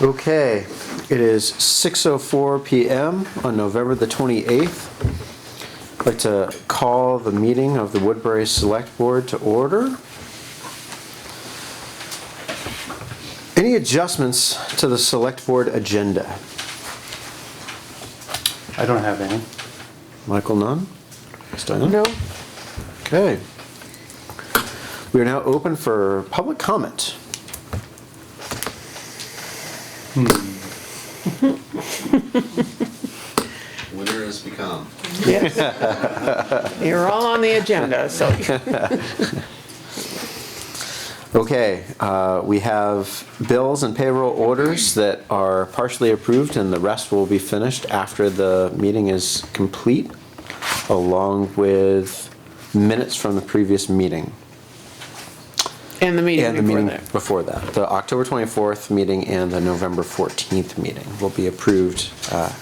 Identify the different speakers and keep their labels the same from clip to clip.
Speaker 1: Okay, it is 6:04 PM on November the 28th. I'd like to call the meeting of the Woodbury Select Board to order. Any adjustments to the Select Board agenda?
Speaker 2: I don't have any.
Speaker 1: Michael, none? Steiner? No. Okay. We are now open for public comment.
Speaker 3: Winter has become.
Speaker 4: Yes. You're all on the agenda, so
Speaker 1: Okay, uh, we have bills and payroll orders that are partially approved and the rest will be finished after the meeting is complete, along with minutes from the previous meeting.
Speaker 4: and the meeting
Speaker 1: And the
Speaker 4: before
Speaker 1: meeting
Speaker 4: that.
Speaker 1: before that, the October 24th meeting and the November 14th meeting will be approved uh,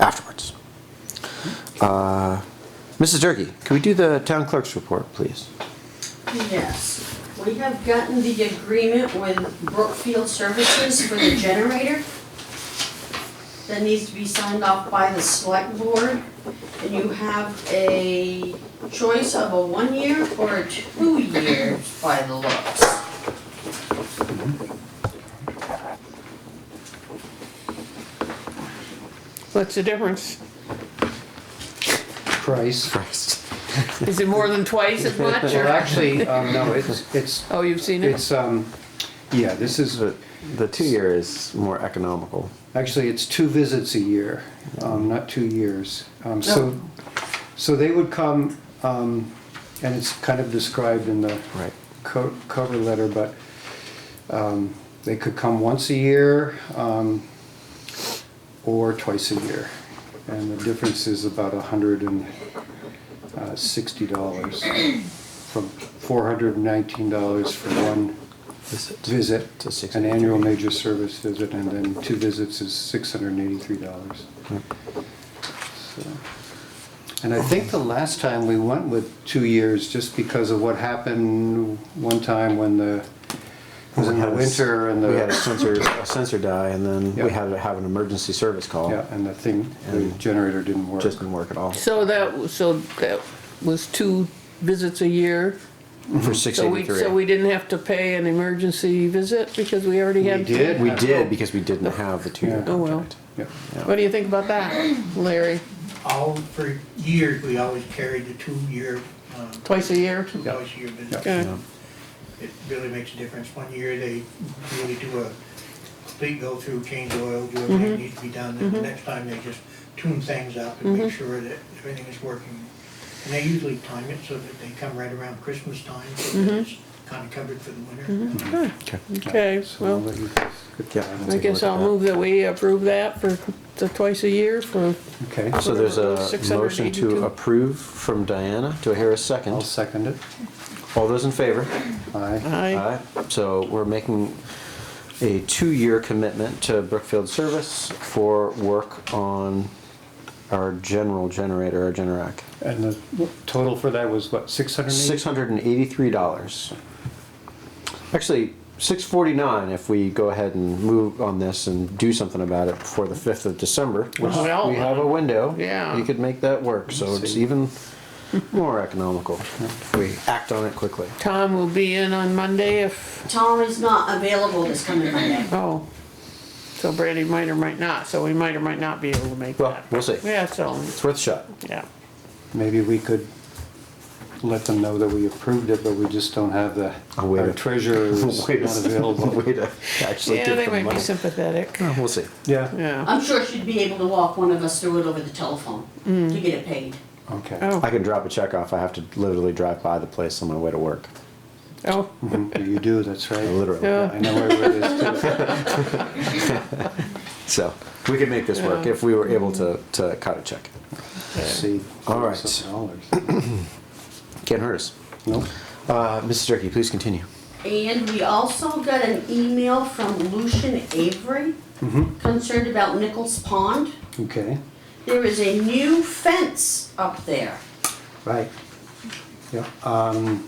Speaker 1: afterwards. Uh, Mrs. Durkey, can we do the town clerk's report, please?
Speaker 5: Yes, we have gotten the agreement with Brookfield Services for the generator. That needs to be signed off by the select board. And you have a choice of a one-year or a two-year by the looks.
Speaker 4: What's the difference?
Speaker 2: Price.
Speaker 4: Is it more than twice as much
Speaker 2: Well,
Speaker 4: or?
Speaker 2: actually, um, no, it's, it's,
Speaker 4: Oh, you've seen it?
Speaker 2: it's, um, yeah, this is,
Speaker 1: The, the two-year is more economical.
Speaker 2: actually, it's two visits a year, um, not two years. Um, so, so they would come, um, and it's kind of described in the
Speaker 1: Right.
Speaker 2: co- cover letter, but, um, they could come once a year, um, or twice a year. And the difference is about a hundred and uh, sixty dollars from four hundred and nineteen dollars for one visit,
Speaker 1: To six-
Speaker 2: an annual major service visit, and then two visits is six hundred and eighty-three dollars. And I think the last time we went with two years, just because of what happened one time when the, it was in the winter and
Speaker 1: We had a
Speaker 2: the,
Speaker 1: sensor, a sensor die and then
Speaker 2: Yeah.
Speaker 1: we had to have an emergency service call.
Speaker 2: yeah, and the thing, the
Speaker 1: And-
Speaker 2: generator didn't work.
Speaker 1: Just didn't work at all
Speaker 4: So that, so that was two visits a year?
Speaker 1: for six
Speaker 4: So we, so we
Speaker 1: eighty-three.
Speaker 4: didn't have to pay an emergency visit because we already had?
Speaker 2: We
Speaker 4: two?
Speaker 2: did.
Speaker 1: We did because we didn't have the two-year
Speaker 2: Yeah. Oh,
Speaker 4: well.
Speaker 1: contract.
Speaker 2: Yeah.
Speaker 4: What do you think about that, Larry?
Speaker 6: all, for years, we always carried the two-year, um,
Speaker 4: Twice a year?
Speaker 6: two dollars a year visit.
Speaker 4: Okay.
Speaker 6: It really makes a difference. One year, they really do a complete go-through, change oil, do everything that needs to be done. And the next time, they just tune things up and make sure that everything is working. And they usually time it so that they come right around Christmas time, so that it's kind of covered for the winter.
Speaker 1: Okay.
Speaker 4: Okay,
Speaker 2: So I'll
Speaker 4: well,
Speaker 2: let you get
Speaker 1: Yeah.
Speaker 2: that.
Speaker 4: I guess I'll move that we approve that for the twice a year for,
Speaker 2: Okay,
Speaker 1: So there's a
Speaker 4: Whatever,
Speaker 1: motion to
Speaker 4: 682.
Speaker 1: approve from Diana. Do I hear a
Speaker 2: I'll
Speaker 1: second?
Speaker 2: second it.
Speaker 1: All those in favor?
Speaker 2: Aye.
Speaker 4: aye.
Speaker 1: Aye. So we're making a two-year commitment to Brookfield Service for work on our general generator, our Generac.
Speaker 2: And the total for that was what, six hundred and eighty?
Speaker 1: Six hundred and eighty-three dollars. Actually, six forty-nine if we go ahead and move on this and do something about it before the fifth of December, which
Speaker 4: Well,
Speaker 1: we have a window.
Speaker 4: yeah.
Speaker 1: You could make that work, so it's
Speaker 2: See.
Speaker 1: even more economical if we act on it quickly.
Speaker 4: Tom will be in on Monday if
Speaker 5: Tom is not available this coming Monday.
Speaker 4: Oh, so Brandy might or might not, so we might or might not be able to make
Speaker 1: Well,
Speaker 4: that.
Speaker 1: we'll see.
Speaker 4: Yeah, so,
Speaker 1: It's worth a shot.
Speaker 4: yeah,
Speaker 2: Maybe we could let them know that we approved it, but we just don't have the,
Speaker 1: A way
Speaker 2: our
Speaker 1: to-
Speaker 2: treasurer is not
Speaker 1: Way to-
Speaker 2: available.
Speaker 1: Way to actually
Speaker 4: yeah,
Speaker 1: give
Speaker 4: they
Speaker 1: them
Speaker 4: might be
Speaker 1: money.
Speaker 4: sympathetic,
Speaker 1: Uh, We'll see.
Speaker 2: Yeah,
Speaker 4: yeah.
Speaker 5: I'm sure she'd be able to walk one of us through it over the telephone to get it paid.
Speaker 2: okay.
Speaker 1: I
Speaker 4: Oh,
Speaker 1: can drop a check off. I have to literally drive by the place on my way to work,
Speaker 4: oh,
Speaker 2: Mhm, You do, that's right.
Speaker 1: literally.
Speaker 2: I
Speaker 4: yeah,
Speaker 2: know where it is too.
Speaker 1: So we could make this work
Speaker 4: Yeah.
Speaker 1: if we were able to, to cut a check.
Speaker 2: See,
Speaker 1: All right.
Speaker 2: $47.
Speaker 1: Can't hurt us.
Speaker 2: Nope.
Speaker 1: Uh, Mrs. Durkey, please continue.
Speaker 5: And we also got an email from Lucian Avery concerned about Nichols Pond.
Speaker 2: Okay,
Speaker 5: There is a new fence up there.
Speaker 2: right. Yeah, um,